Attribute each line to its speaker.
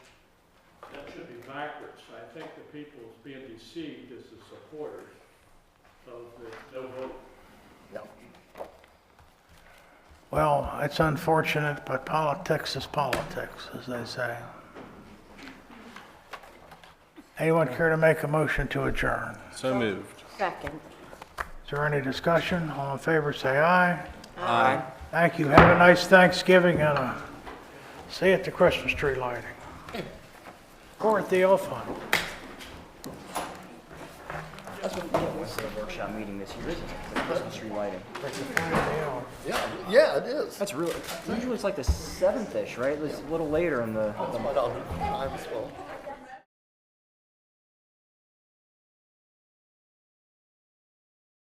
Speaker 1: backwards. I think the people being deceived is the supporters of the no vote.
Speaker 2: Well, it's unfortunate, but politics is politics, as they say. Anyone care to make a motion to adjourn?
Speaker 3: So moved.
Speaker 4: Second.
Speaker 2: Is there any discussion? All in favor, say aye.
Speaker 3: Aye.
Speaker 2: Thank you. Have a nice Thanksgiving and uh see you at the Christmas tree lighting. Or at the elf hunt.
Speaker 5: That's what yeah, what's the workshop meeting this year, isn't it? The Christmas tree lighting.
Speaker 2: It's a kind of deal.
Speaker 6: Yeah, yeah, it is.
Speaker 5: That's really usually it's like the seventh ish, right? It's a little later in the.
Speaker 6: That's what I'll do. Time as well.